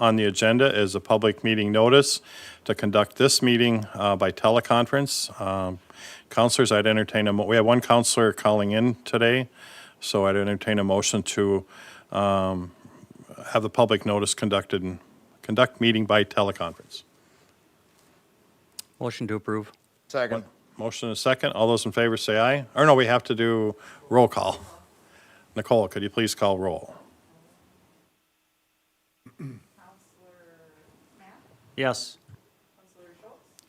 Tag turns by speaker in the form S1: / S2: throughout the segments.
S1: on the agenda is a public meeting notice to conduct this meeting uh, by teleconference. Um, Counselors, I'd entertain a, mo- we have one counselor calling in today, so I'd entertain a motion to um, have the public notice conducted, and conduct meeting by teleconference.
S2: Motion to approve.
S3: Second.
S1: Motion and a second. All those in favor say aye. Or no, we have to do roll call. Nicole, could you please call roll?
S2: Yes.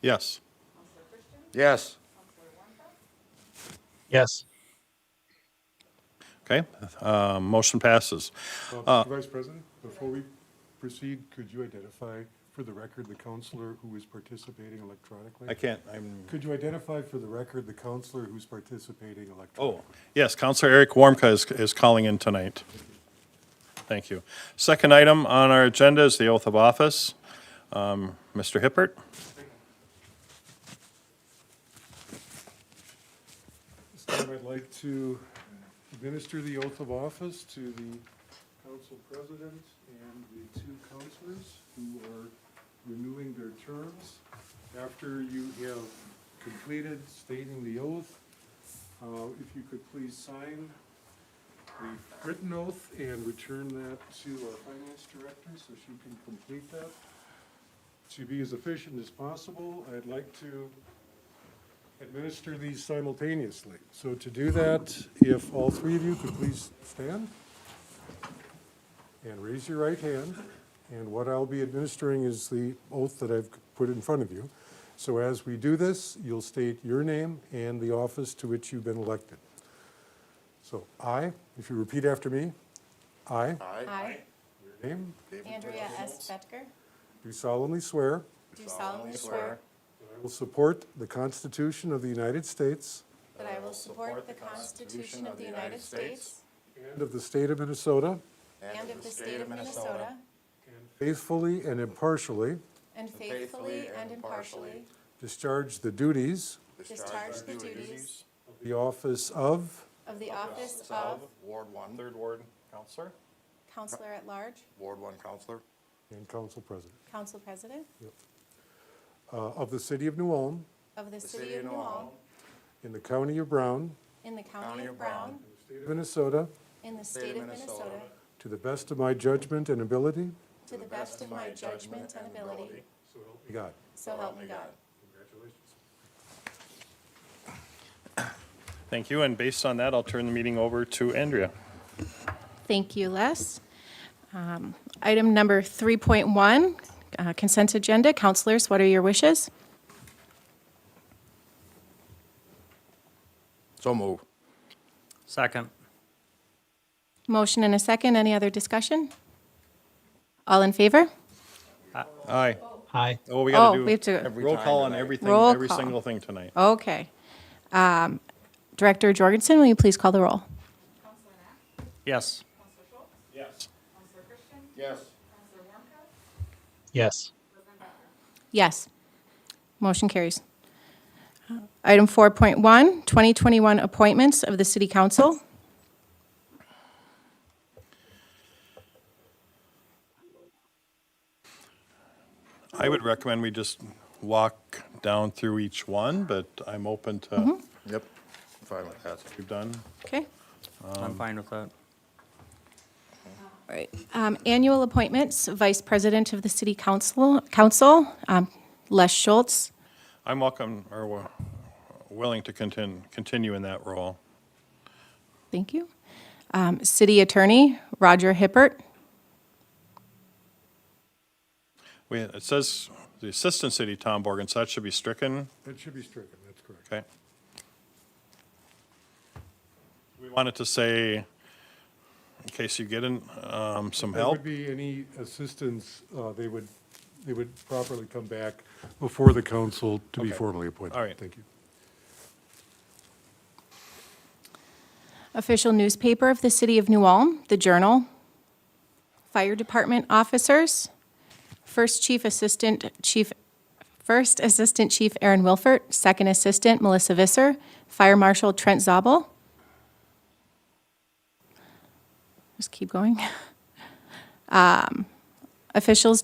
S1: Yes.
S3: Yes.
S4: Yes.
S1: Okay. Uh, Motion passes. Uh,
S5: Well, Vice President, before we proceed, could you identify for the record the counselor who is participating electronically?
S1: I can't, I'm,
S5: Could you identify for the record the counselor who's participating
S1: oh,
S5: electronically?
S1: yes, Counselor Eric Warmka is, is calling in tonight. Thank you. Second item on our agenda is the oath of office. Um, Mr. Hippert?
S5: This time I'd like to administer the oath of office to the council president and the two councilors who are renewing their terms. After you have completed stating the oath, uh, if you could please sign the written oath and return that to our finance director so she can complete that. To be as efficient as possible, I'd like to administer these simultaneously. So to do that, if all three of you could please stand and raise your right hand. And what I'll be administering is the oath that I've put in front of you. So as we do this, you'll state your name and the office to which you've been elected. So I, if you repeat after me, I,
S6: I,
S5: your name,
S6: Andrea S. Fetker,
S5: do solemnly swear
S6: do solemnly swear
S5: that I will support the Constitution of the United States
S6: that I will support the Constitution of the United States
S5: and of the state of Minnesota,
S6: and of the state of Minnesota,
S5: faithfully and impartially
S6: and faithfully and impartially
S5: discharge the duties
S6: discharge the duties
S5: of the office of
S6: of the office of
S3: Ward one,
S1: Third Ward Counselor?
S6: Counselor at Large,
S3: Ward one counselor,
S5: and council president
S6: Council President
S5: uh, of the city of New Ulm
S6: of the City of New Ulm,
S5: in the county of Brown,
S6: in the County of Brown,
S5: state of Minnesota,
S6: in the state of Minnesota,
S5: to the best of my judgment and ability.
S6: to the best of my judgment and ability,
S5: So help me God.
S6: so help me God.
S5: Congratulations.
S1: Thank you, and based on that, I'll turn the meeting over to Andrea.
S6: Thank you, Les. Um, Item number 3.1, uh, consent agenda. Counselors, what are your wishes?
S3: So move.
S2: Second.
S6: Motion and a second. Any other discussion? All in favor?
S1: Aye.
S4: Aye.
S1: Oh, we
S6: Oh,
S1: gotta
S6: we have
S1: do
S6: to,
S1: roll call on everything,
S6: Roll
S1: every
S6: call.
S1: single thing tonight.
S6: okay. Um, Director Jorgensen, will you please call the roll?
S2: Yes.
S1: Yes.
S3: Yes.
S4: Yes.
S6: Yes. Motion carries. Uh, Item 4.1, 2021 appointments of the City Council.
S1: I would recommend we just walk down through each one, but I'm open to
S6: Mm-hmm.
S1: what
S3: Yep, fine with that.
S1: you've done.
S6: Okay.
S2: I'm fine with that.
S6: All right. Um, Annual appointments, Vice President of the City Council, Council, um, Les Schultz.
S1: I'm welcome or wi- willing to continue, continue in that role.
S6: Thank you. Um, City Attorney, Roger Hippert.
S1: We, it says the Assistant City Tom Borgen, so that should be stricken,
S5: That should be stricken, that's correct.
S1: okay? We wanted to say, in case you get in, um, some
S5: There
S1: help.
S5: would be any assistance, uh, they would, they would properly come back before the council to be
S1: Okay.
S5: formally appointed.
S1: All right.
S5: Thank you.
S6: Official newspaper of the City of New Ulm, The Journal. Fire Department officers, First Chief Assistant Chief, First Assistant Chief Aaron Wilford, Second Assistant Melissa Visser, Fire Marshal Trent Zabel. Just keep going. Um, Officials